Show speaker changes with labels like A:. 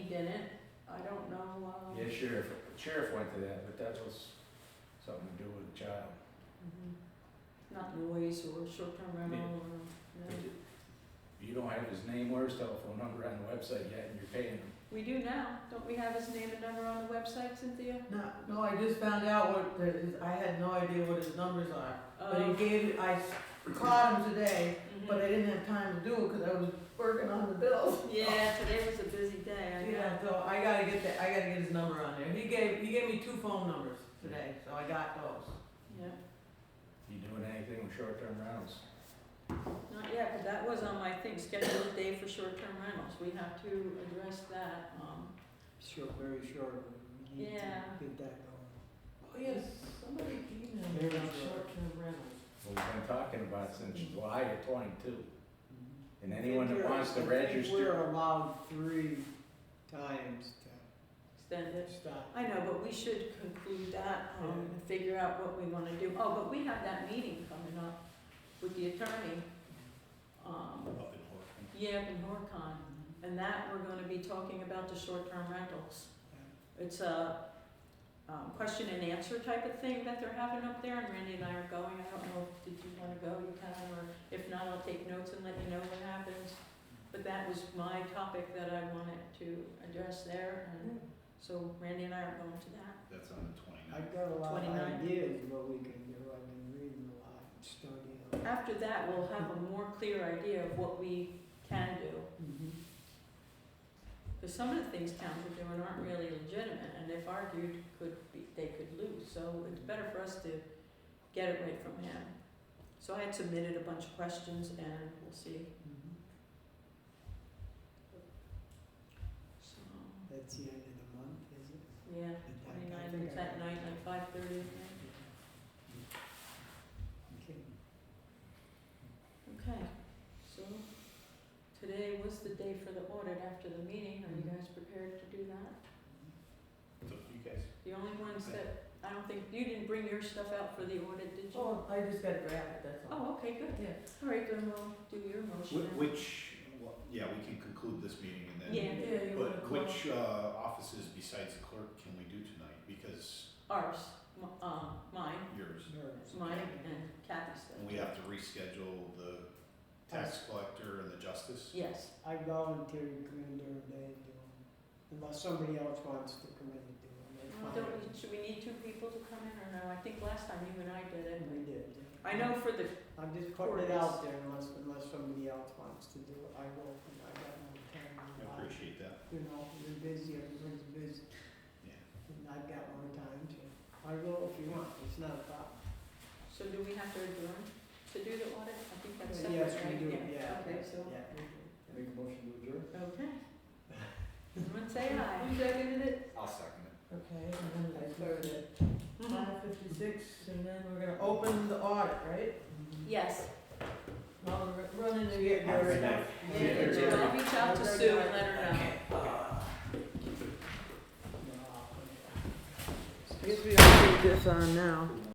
A: didn't, I don't know, um.
B: Yeah, sheriff, sheriff went to that, but that was something to do with the child.
A: mhm. Not noise or short-term rental or,
B: But
A: no.
B: You don't have his name or his telephone number on the website yet, and you're paying him.
A: We do now, don't we have his name and number on the website, Cynthia?
C: No, no, I just found out what, the- his- I had no idea what his numbers are, but
A: Um,
C: he gave, I s- caught him today,
A: mm-hmm.
C: but I didn't have time to do it because I was working on the bills.
A: Yeah, today was a busy day, I know.
C: Yeah, so I gotta get that, I gotta get his number on there, he gave, he gave me two phone numbers today, so I got those.
A: Yeah,
B: You doing anything with short-term rentals?
A: not yet, but that was on my thing, schedule a day for short-term rentals, we have to address that, um,
D: Sure, very sure. We need to
A: Yeah.
D: Get that going.
C: Oh, yes, somebody emailed me
D: Very
C: about
D: sure.
C: short-term rentals.
B: We've been talking about since July of twenty-two,
D: Mhm.
B: and Mm-hmm. anyone that wants to
D: I think
B: register,
D: We're allowed three times
A: extend
D: to
A: it.
D: stop.
A: I know, but we should conclude that, um, and figure out what we wanna do. Oh, but we have that meeting coming up with the attorney, um,
B: Up in Horton.
A: yeah, up in Horcon. And that, we're gonna be talking about the short-term rentals. It's a, um, question and answer type of thing that they're having up there, and Randy and I are going. I don't know, did you wanna go, you can, or if not, I'll take notes and let you know what happens. But that was my topic that I wanted to address there, and so Randy and I are going to that.
B: That's on the twenty-ninth.
D: I've got a lot of
A: 29.
D: ideas what we can do. I've been reading a lot, and studying. a lot.
A: After that, we'll have a more clear idea of what we can do,
D: Mhm.
A: because some of the things towns are doing aren't really legitimate, and if argued, could be, they could lose, so it's better for us to get it right from him. So I had submitted a bunch of questions, and we'll see,
D: Mhm.
A: mm-hmm. so,
D: That's the end of the month, is it?
A: yeah,
D: I- I
A: twenty-nine,
D: think
A: it's
D: I
A: that
D: got
A: night, like five thirty,
D: that. Okay.
A: okay, so, today was the day for the audit after the meeting, are you guys prepared to do that?
B: You guys.
A: The only ones that, I don't think, you didn't bring your stuff out for the audit, did you?
C: Oh, I just got grabbed, that's all.
A: Oh, okay, good.
C: Yeah.
A: All right, then we'll do your motion. now.
E: Which, well, yeah, we can conclude this meeting and then.
A: Yeah,
C: Yeah, you wanna
E: But
C: call?
E: which uh, offices besides the clerk can we do tonight? Because
A: ours, m- um, mine,
E: yours,
D: Nerves.
A: mine and Kathy's stuff.
E: and we have to reschedule the tax collector and the justice.
A: Yes,
D: I volunteer to come in during the day and do them, unless somebody else wants to come in and do them. that's
A: Well,
D: fine.
A: don't we, should we need two people to come in or no? I think last time you and I did it.
D: We did. yeah.
A: I know for the,
D: I'm just putting it out there unless, unless somebody else wants to do it, I will, I got no time. in my
E: I
D: life.
E: appreciate that,
D: You know, you're busy, everyone's busy,
E: yeah.
D: and I've got more time to, I will if you want, it's not a problem.
A: so do we have to adjourn to do the audit? I think that's
D: But
A: separate,
D: Yes,
A: right?
D: we do, yeah.
A: Okay, so,
D: Yeah.
B: Make a motion to adjourn?
A: okay. Everyone say aye.
C: You seconded it?
E: I'll second it.
C: Okay, and then I started at
A: Mhm.
C: five fifty-six, and then we're gonna open the audit, right?
A: Yes,
C: While we're running to get
D: Have a
C: our
D: good
C: stuff.
D: night.
A: Yeah, Jill, I'll uh, reach out to Sue and let her know.
D: Ah. Guess we don't need this on now.